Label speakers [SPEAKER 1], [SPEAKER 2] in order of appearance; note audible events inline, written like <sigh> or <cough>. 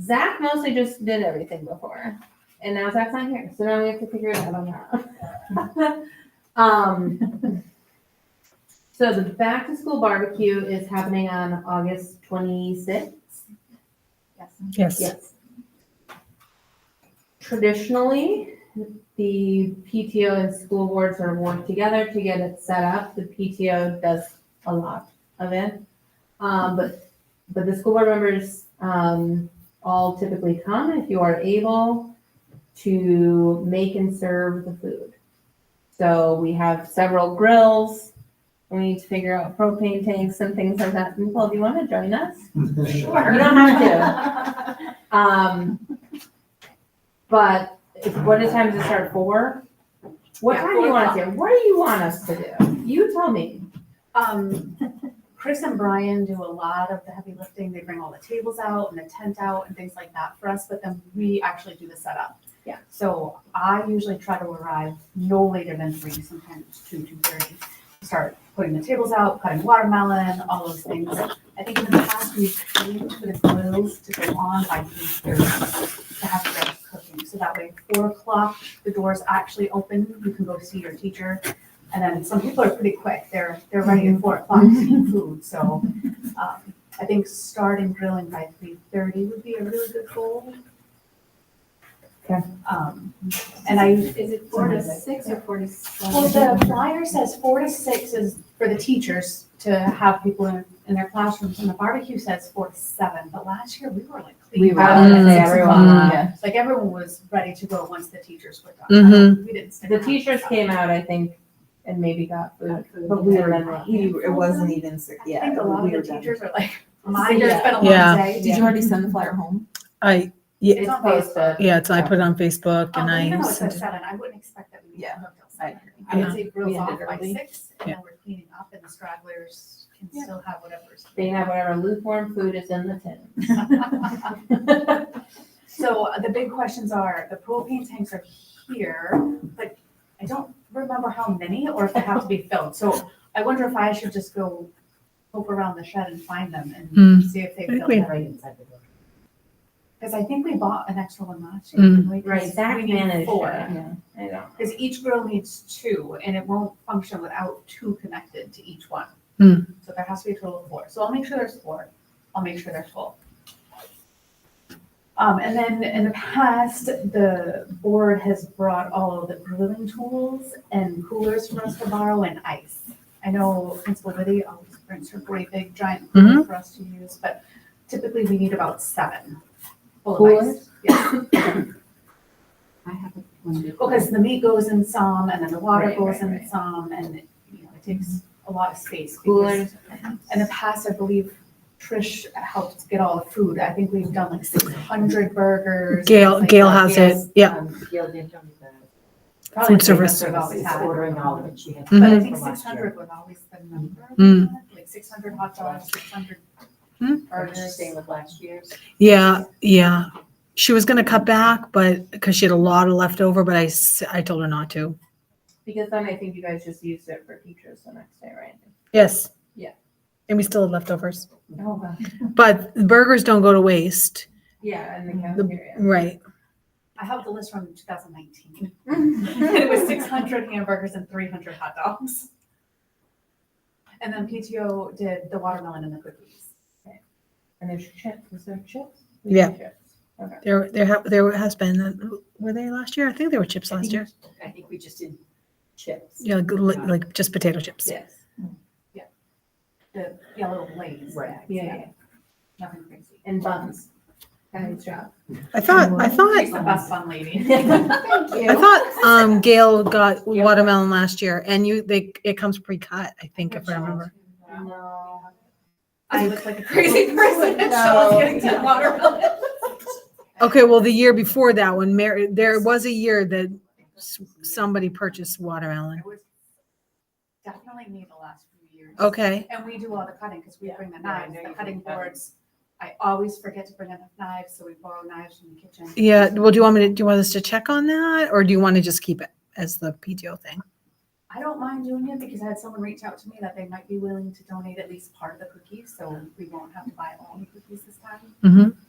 [SPEAKER 1] Zach mostly just did everything before, and now Zach's not here, so now we have to figure it out on our own. <laughs> um, so the back to school barbecue is happening on August 26th. Yes.
[SPEAKER 2] Yes.
[SPEAKER 1] Yes. Traditionally, the PTO and school boards are worked together to get it set up. The PTO does a lot of it. Um, but, but the school board members, um, all typically come if you are able to make and serve the food. So we have several grills. We need to figure out propane tanks and things like that. Nicole, do you want to join us? You don't have
[SPEAKER 3] to.
[SPEAKER 1] Um, but if- what is time to start? Four? What
[SPEAKER 3] Yeah,
[SPEAKER 1] time do you
[SPEAKER 3] four
[SPEAKER 1] want us here? What do you want us to do? You tell me.
[SPEAKER 3] <laughs> Um, Chris and Brian do a lot of the heavy lifting. They bring all the tables out and the tent out and things like that for us, but then we actually do the setup.
[SPEAKER 1] Yeah.
[SPEAKER 3] So I usually try to arrive no later than three, sometimes two, two thirty. Start putting the tables out, cutting watermelon, all those things. I think in the past, we've changed for the grills to go on by three thirty to have them cooking. So that way, four o'clock, the doors actually open, you can go see your teacher. And then some people are pretty quick, they're, they're ready at four o'clock to eat food, so. um, I think starting grilling by three thirty would be a really good goal.
[SPEAKER 1] Okay.
[SPEAKER 3] Um, and I,
[SPEAKER 4] Is it
[SPEAKER 3] four
[SPEAKER 4] four
[SPEAKER 3] to
[SPEAKER 4] to six or four to
[SPEAKER 3] well,
[SPEAKER 4] seven?
[SPEAKER 3] the flyer says four to six is for the teachers to have people in, in their classrooms, and the barbecue says four to seven, but last year we were like cleaned
[SPEAKER 2] were.
[SPEAKER 3] out. at
[SPEAKER 2] Mm,
[SPEAKER 3] six
[SPEAKER 2] everyone,
[SPEAKER 3] o'clock.
[SPEAKER 1] yeah.
[SPEAKER 3] Like everyone was ready to go once the teachers were
[SPEAKER 2] Mm-hmm.
[SPEAKER 3] done. We didn't. stick
[SPEAKER 1] The
[SPEAKER 3] around.
[SPEAKER 1] teachers came out, I think, and maybe got food. But we were done.
[SPEAKER 4] You, it wasn't even, six-
[SPEAKER 3] I
[SPEAKER 4] yeah.
[SPEAKER 3] think a lot
[SPEAKER 4] we
[SPEAKER 3] of the
[SPEAKER 4] were done.
[SPEAKER 3] teachers are like, my, it's been a long
[SPEAKER 2] Yeah.
[SPEAKER 3] day.
[SPEAKER 4] Did you already send the flyer home?
[SPEAKER 2] I,
[SPEAKER 1] It's posted.
[SPEAKER 2] yeah, it's, I put it on Facebook
[SPEAKER 3] Oh,
[SPEAKER 2] and
[SPEAKER 3] even
[SPEAKER 2] I
[SPEAKER 3] though it says
[SPEAKER 2] sent it.
[SPEAKER 3] seven, I wouldn't expect that we need
[SPEAKER 4] Yeah.
[SPEAKER 3] to hook till
[SPEAKER 4] I
[SPEAKER 3] seven. I would
[SPEAKER 2] Yeah.
[SPEAKER 3] say grills
[SPEAKER 4] We
[SPEAKER 3] off
[SPEAKER 4] ended
[SPEAKER 3] by
[SPEAKER 4] early.
[SPEAKER 3] six, and then we're cleaning up, and the stragglers can
[SPEAKER 4] Yeah.
[SPEAKER 3] still have whatever's.
[SPEAKER 1] They have whatever lukewarm food is in the tin.
[SPEAKER 3] <laughs> So uh, the big questions are, the propane tanks are here, but I don't remember how many or if they have to be filled. So I wonder if I should just go poke around the shed and find them
[SPEAKER 2] Hmm.
[SPEAKER 3] and see if they
[SPEAKER 2] think
[SPEAKER 3] filled
[SPEAKER 2] we-
[SPEAKER 3] them. Because I think we bought an extra one last
[SPEAKER 2] Hmm.
[SPEAKER 3] year. didn't we? 'Cause
[SPEAKER 1] Right, Zach
[SPEAKER 3] we need
[SPEAKER 1] managed
[SPEAKER 3] four.
[SPEAKER 1] it.
[SPEAKER 4] Yeah.
[SPEAKER 1] I know.
[SPEAKER 3] Because each grill needs two, and it won't function without two connected to each one.
[SPEAKER 2] Hmm.
[SPEAKER 3] So there has to be a total of four. So I'll make sure there's four. I'll make sure they're full. Um, and then in the past, the board has brought all of the grilling tools and coolers for us to borrow and ice. I know Principal Liddy always brings her great big giant cooler for us to use, but typically we need about seven. full of ice.
[SPEAKER 1] Coolers?
[SPEAKER 3] Yeah.
[SPEAKER 4] I have one.
[SPEAKER 3] Because the meat goes in some, and then the water
[SPEAKER 1] Right,
[SPEAKER 3] goes
[SPEAKER 1] right,
[SPEAKER 3] in
[SPEAKER 1] right.
[SPEAKER 3] some, and it, you know, it takes
[SPEAKER 2] Mm-hmm.
[SPEAKER 3] a lot of space. because
[SPEAKER 1] Coolers.
[SPEAKER 3] In the past, I believe Trish helped get all the food. I think we've done like six hundred burgers.
[SPEAKER 2] Gail,
[SPEAKER 3] things like
[SPEAKER 2] Gail
[SPEAKER 3] that.
[SPEAKER 2] has it. Yeah.
[SPEAKER 3] um, Probably
[SPEAKER 2] food
[SPEAKER 3] the biggest
[SPEAKER 2] service. Mm-hmm.
[SPEAKER 3] we've always had.
[SPEAKER 5] Ordering all of it, she had. Mm-hmm.
[SPEAKER 3] But I
[SPEAKER 2] Mhm.
[SPEAKER 3] think six hundred was always the number,
[SPEAKER 2] Mm.
[SPEAKER 3] like six hundred hot dogs, six hundred
[SPEAKER 2] Hmm.
[SPEAKER 3] burgers.
[SPEAKER 5] with last year's.
[SPEAKER 2] Yeah, yeah. She was gonna cut back, but, because she had a lot of left over, but I, s- I told her not to.
[SPEAKER 1] Because then I think you guys just used it for teachers the next day, right?
[SPEAKER 2] Yes.
[SPEAKER 1] Yeah.
[SPEAKER 2] And we still had leftovers.
[SPEAKER 1] Oh, wow.
[SPEAKER 2] But burgers don't go to waste.
[SPEAKER 1] Yeah, in the
[SPEAKER 2] The-
[SPEAKER 1] cafeteria.
[SPEAKER 2] Right.
[SPEAKER 3] I have the list from two thousand nineteen. <laughs> And it was six hundred hamburgers and three hundred hot dogs. And then PTO did the watermelon and the cookies.
[SPEAKER 1] <laughs> And there's chips, is there chips?
[SPEAKER 2] Yeah.
[SPEAKER 1] Chips. Okay.
[SPEAKER 2] There, there, ha- there has been, uh, were they last year? I think they were chips last year.
[SPEAKER 5] I think we just did chips.
[SPEAKER 2] Yeah, good, li- like just potato chips.
[SPEAKER 1] Yes.
[SPEAKER 3] the yellow blaze.
[SPEAKER 5] Right.
[SPEAKER 3] bags,
[SPEAKER 1] Yeah, yeah.
[SPEAKER 3] Nothing crazy.
[SPEAKER 1] And buns. Nice job.
[SPEAKER 2] I thought, I thought,
[SPEAKER 3] She's the best fun
[SPEAKER 5] <laughs>
[SPEAKER 3] lady.
[SPEAKER 4] Thank
[SPEAKER 2] I
[SPEAKER 4] you.
[SPEAKER 2] thought, um, Gail got watermelon last year and you, they, it comes pre-cut, I think, if I remember.
[SPEAKER 1] No.
[SPEAKER 3] I look like a
[SPEAKER 5] <laughs>
[SPEAKER 3] crazy person <laughs>
[SPEAKER 1] No.
[SPEAKER 3] and Shaw's getting to watermelon.
[SPEAKER 2] Okay, well, the year before that one, Mary, there was a year that s- somebody purchased watermelon.
[SPEAKER 3] I was Definitely me the last few years.
[SPEAKER 2] Okay,
[SPEAKER 3] And we do all the cutting because we bring the
[SPEAKER 5] Yeah, I
[SPEAKER 3] knives,
[SPEAKER 5] know
[SPEAKER 3] the
[SPEAKER 5] you
[SPEAKER 3] cutting
[SPEAKER 5] bring cutting.
[SPEAKER 3] boards. I always forget to bring enough knives, so we borrow knives from the kitchen.
[SPEAKER 2] yeah, well, do you want me to, do you want us to check on that or do you want to just keep it as the PTO thing?
[SPEAKER 3] I don't mind doing it because I had someone reach out to me that they might be willing to donate at least part of the cookies, so we won't have to buy all the cookies this time.
[SPEAKER 2] Mhm.